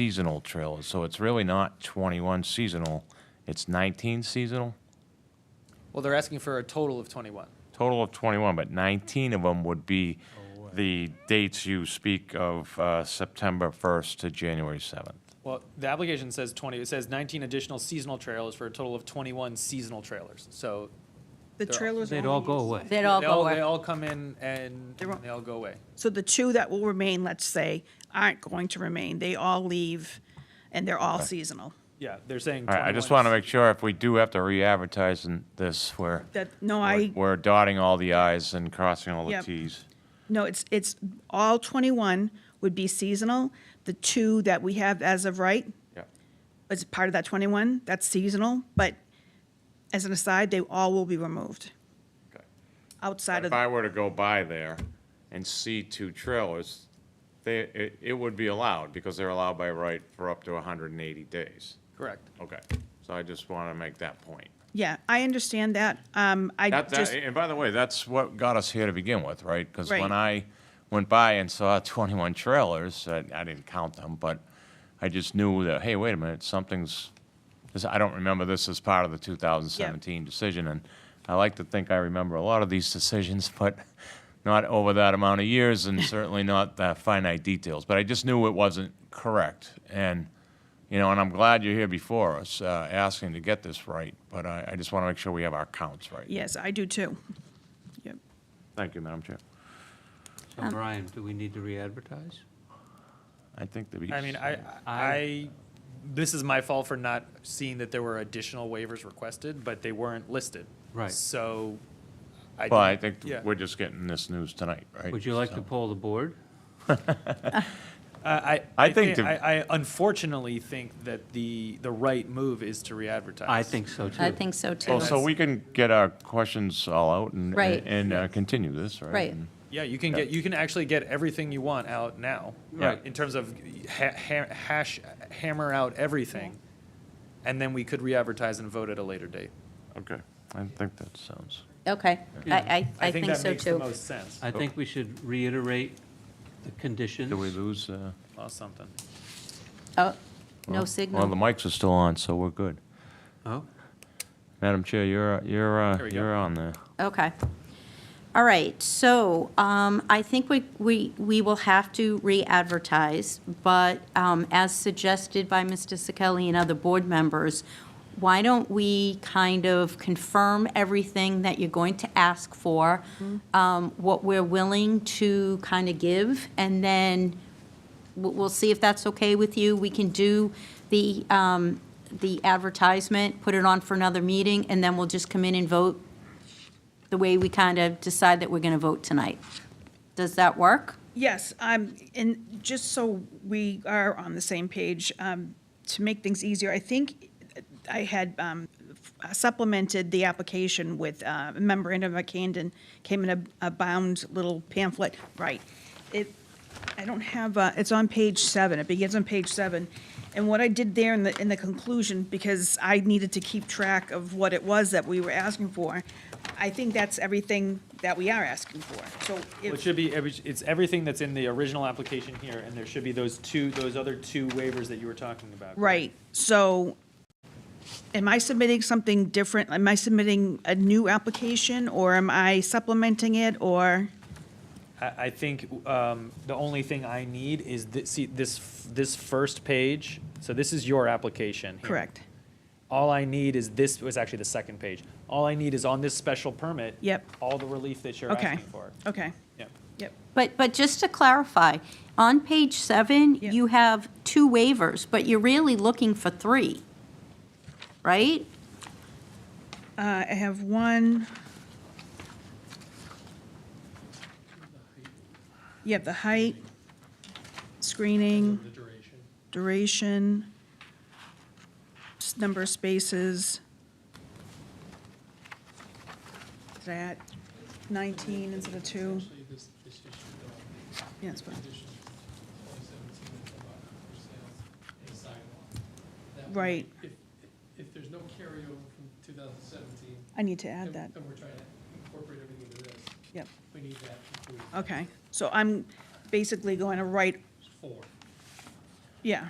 seasonal trailers, so it's really not 21 seasonal, it's 19 seasonal, Well, they're asking for a total of 21. total of 21, but 19 of them would be the dates you speak of, uh, September 1st to January 7th. Well, the application says 20, it says 19 additional seasonal trailers for a total of 21 seasonal trailers. So The They're all- trailers. They'd only all go use- away. They'd all they go all, they away. all come in and They're all- they all go away. So the two that will remain, let's say, aren't going to remain. They all leave and they're all seasonal. Yeah, they're saying All right, I just 21 want to make sure if we do have to re-advertise in this, we're, That, no, we're- I, we're dotting all the i's and crossing all the Yep. t's. no, it's, it's, all 21 would be seasonal. The two that we have as of right Yep. is part of that 21, that's seasonal, but as an aside, they all will be removed Okay. outside of, If I were to go by there and see two trailers, they, it, it would be allowed, because they're allowed by right for up to hundred and eighty days. Correct. Okay, so I just want to make that point. yeah, I understand that. Um, I That, that, just, and by the way, that's what got us here to begin with, right? Because when I Right. went by and saw twenty-one trailers, I, I didn't count them, but I just knew that, hey, wait a minute, something's, this, I don't remember this as part of the two thousand seventeen decision, and I like to think I remember a lot of these decisions, but not over that amount of years and certainly not the finite details, but I just knew it wasn't correct, and you know, and I'm glad you're here before us, uh, asking to get this right, but I, I just want to make sure we have our counts right. yes, I do too. Yep. Thank you, Madam Chair. Um, So Brian, do we need to re-advertise? I think that we. I mean, I, I, this is my fault for not seeing that there were additional waivers requested, but they weren't listed. Right. So I. Well, I didn't- think yeah. we're just getting this news tonight, right? Would you like to So- poll the board? I, I, I I think think, the- I I unfortunately think that the, the right move is to re-advertise. I think so, too. I think so too. Well, so we can get our questions all out and. Right. And uh, continue this, right? Right. And- Yeah, you can get, you can actually get everything you want out now. Right. In terms of ha- ha- hash, hammer out everything, and then we could re-advertise and vote at a later date. Okay, I think that sounds, Okay, I, I, I think that so makes the too. most sense. I think we should reiterate the did we conditions. lose? uh, Lost something. Oh, no well- Well, the signal. mics are still on, so we're good. Oh, Madam Chair, you're, uh, you're, uh, There we go. you're on there. Okay. All right, so um, I think we, we, we will have to re-advertise, but um, as suggested by Mr. Sekeli and other board members, why don't we kind of confirm everything that you're going to ask for, um, what we're willing to kind of give, and then we'll, we'll see if that's okay with you. We can do the, um, the advertisement, put it on for another meeting, and then we'll just come in and vote the way we kind of decide that we're going to vote tonight. Does that work? Yes, um, and just so we are on the same page, um, to make things easier, I think I had, um, supplemented the application with, uh, a memorandum of Camden, came in a, a bound little pamphlet, right. It, I don't have, uh, it's on page seven, it begins on page seven. And what I did there in the, in the conclusion, because I needed to keep track of what it was that we were asking for, I think that's everything that we are asking for, so if. Well, It should be, every- it's everything that's in the original application here, and there should be those two, those other two waivers that you were talking about. correct? Right, so am I submitting something different? Am I submitting a new application, or am I supplementing it, or? I, I think um, the only thing I need is, thi- see, this, f- this first page, so this is your application. here. Correct, All I need is this, it was actually the second page. All I need is on this special permit. Yep. All the relief that you're okay, asking for. okay, Yep. yep, But, but just to clarify, on page seven, Yeah. you have two waivers, but you're really looking for three, right? Uh, I have one. Yep, the height, screening. The duration. Duration, s- number of spaces. Is that 19 instead of 2? Actually, this, this issue, though, Yeah, it's fine. condition twenty seventeen is about for sales and sidewalk. That way, Right. If, if there's no carryover from two thousand seventeen. I need to add that, And we're trying to incorporate everything into this, yep, we need that included, Uh, okay. So I'm basically going to write, four. yeah,